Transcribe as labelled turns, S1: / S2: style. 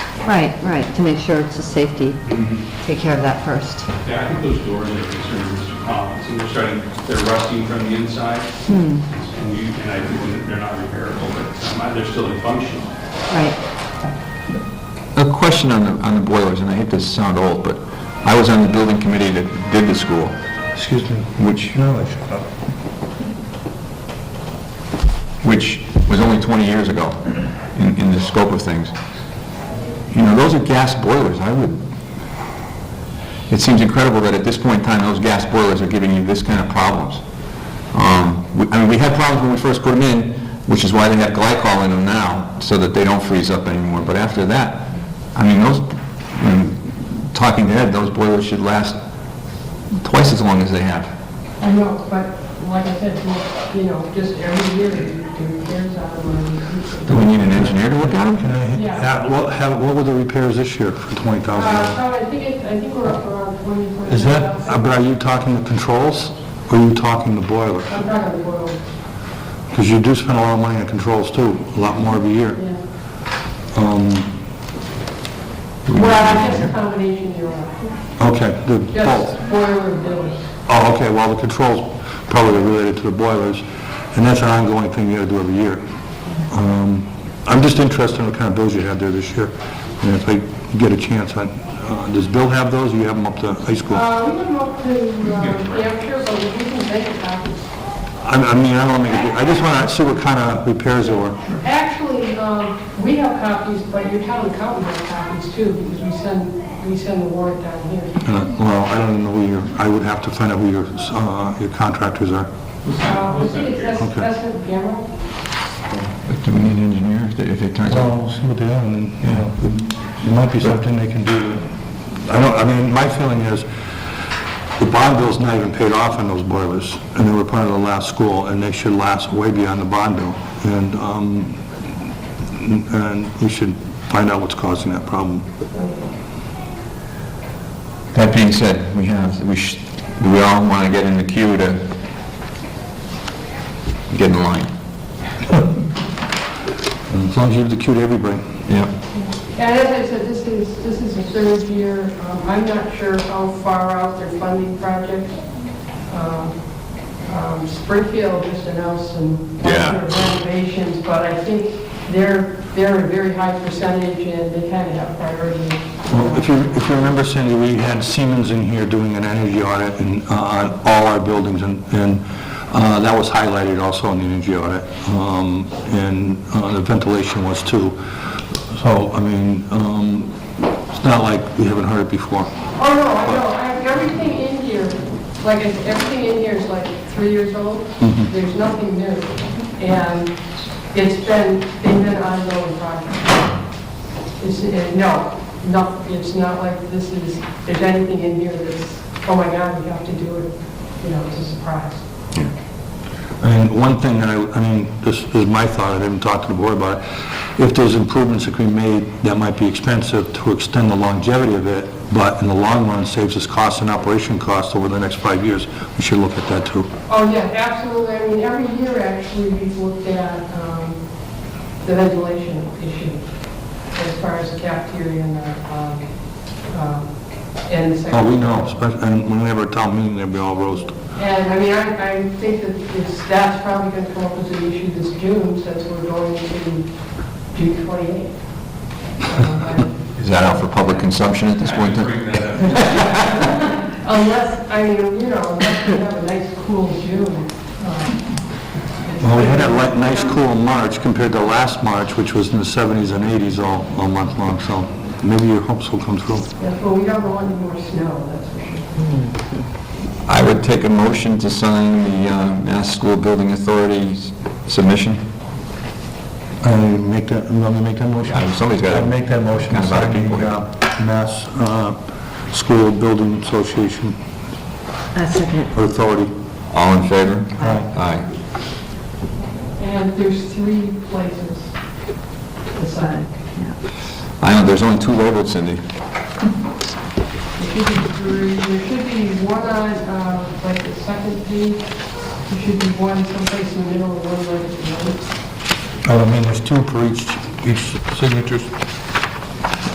S1: Right, right, to make sure it's a safety, take care of that first.
S2: Yeah, I think those doors are concerned Mr. Collins, and they're starting, they're rusting from the inside. And you, and I think they're not repairable, but um, they're still in function.
S1: Right,
S3: A question on the, on the boilers, and I hate to sound old, but I was on the building committee that did the school,
S4: Excuse me.
S3: which,
S4: No, I shut up.
S3: which was only 20 years ago in, in the scope of things. You know, those are gas boilers, I would, it seems incredible that at this point in time, those gas boilers are giving you this kind of problems. Um, we- I mean, we had problems when we first put them in, which is why they have glycol in them now, so that they don't freeze up anymore, but after that, I mean, those, I mean, talking to Ed, those boilers should last twice as long as they have.
S5: I know, but like I said, you know, just every year, the repairs out of money.
S4: Uh,
S3: Do we need an engineer to look at them?
S4: Can I,
S5: Yeah.
S4: have- what, have- what were the repairs this year for twenty thousand
S5: Uh,
S4: dollars?
S5: so I think it, I think we're up around twenty, twenty.
S4: Is that, uh, but are you talking the controls, or are you talking the boiler?
S5: I'm talking the world,
S4: Because you do spend a lot of money on controls too, a lot more every year.
S5: yeah.
S4: Um,
S5: Well, just a combination, you know,
S4: okay, the
S5: just
S4: both.
S5: boiler and bills.
S4: Oh, okay, well, the controls probably are related to the boilers, and that's an ongoing thing you gotta do every year. Um, I'm just interested in what kind of bills you had there this year, and if I get a chance, I, uh, does Bill have those, or you have them up to high school? I,
S5: Uh, we can up to, uh, Hampshire, but we can make a copy.
S4: I mean, I don't wanna make a, big- I just wanna see what kind of repairs there were. Uh,
S5: Actually, um, we have copies, but your town accountant has copies too, because we send, we send the warrant down here.
S4: Uh, Well, I don't know who your, I would have to find out who your, uh, your contractors are.
S5: Uh, let's see, that's,
S4: Okay.
S5: that's the camera.
S3: Do we need an engineer if it- if it turns out?
S4: Well, see what they are, and, then, you know, it might be something they can do. I don't, I mean, my feeling is, the bond bill's not even paid off on those boilers, and they were part of the last school, and they should last way beyond the bond bill. And, um, and we should find out what's causing that problem.
S3: That being said, we have, we sh do we all want to get in the queue to get in line?
S4: And As long as you execute everybody.
S3: Yeah.
S5: And as I said, this is, this is the third year. Um, I'm not sure how far out they're funding projects. Um, um, Springfield just announced some
S3: Yeah.
S5: renovations, but I think they're, they're a very high percentage and they kind of have
S4: Well,
S5: priority.
S4: If you, if you remember, Cindy, we had Siemens in here doing an energy audit in, uh, on all our buildings, and, and uh, that was highlighted also in the energy audit, Um, and uh, the ventilation was too. So, I mean, um, it's not like we haven't heard it before.
S5: Oh, no, I know, I- everything in here, like, I- everything in here is like three years old. There's nothing new. And it's been, they've been ongoing projects. It's, uh, no, no, it's not like this is, there's anything in here that's, oh my God, we have to do it, you know, it's a surprise.
S4: And one thing that I, I mean, this is my thought, I haven't talked to the board about it, if there's improvements that can be made that might be expensive to extend the longevity of it, but in the long run saves us costs and operation costs over the next five years, we should look at that too.
S5: Oh, yeah, absolutely. I mean, every year, actually, we've looked at um, the ventilation issue as far as the cafeteria and the, um, um, and the
S4: Oh, we
S5: second.
S4: know, especially, and when we have our town meeting, they'll be all roast.
S5: And, I mean, I, I think that it's, that's probably going to come up as an issue this June, since we're going to June 28th. Um,
S3: Is that out for public consumption at this point? in time?
S2: Bring that up.
S5: Unless, I mean, you know, unless we have a nice, cool June. um,
S4: Well, we had that li- nice cool March compared to last March, which was in the 70s and 80s all, all month long, so maybe your hopes will come true.
S5: Yes, well, we don't want any more snow, that's for sure.
S3: I would take a motion to sign the uh, Mass School Building Authority's submission.
S4: I make that, you want me to make that motion?
S3: Yeah, somebody's gotta-
S4: I'd make that motion,
S3: Kind of out of
S4: signing
S3: people.
S4: the uh, Mass uh, School Building Association
S1: a second.
S4: Authority.
S3: All in favor?
S4: Aye.
S3: Aye.
S5: And there's three places to sign.
S3: I know, there's only two labeled, Cindy.
S5: There should be three, there should be one on, uh, like the second page, there should be one someplace in the middle and one right at the end.
S4: I mean, there's two for each, each signatures.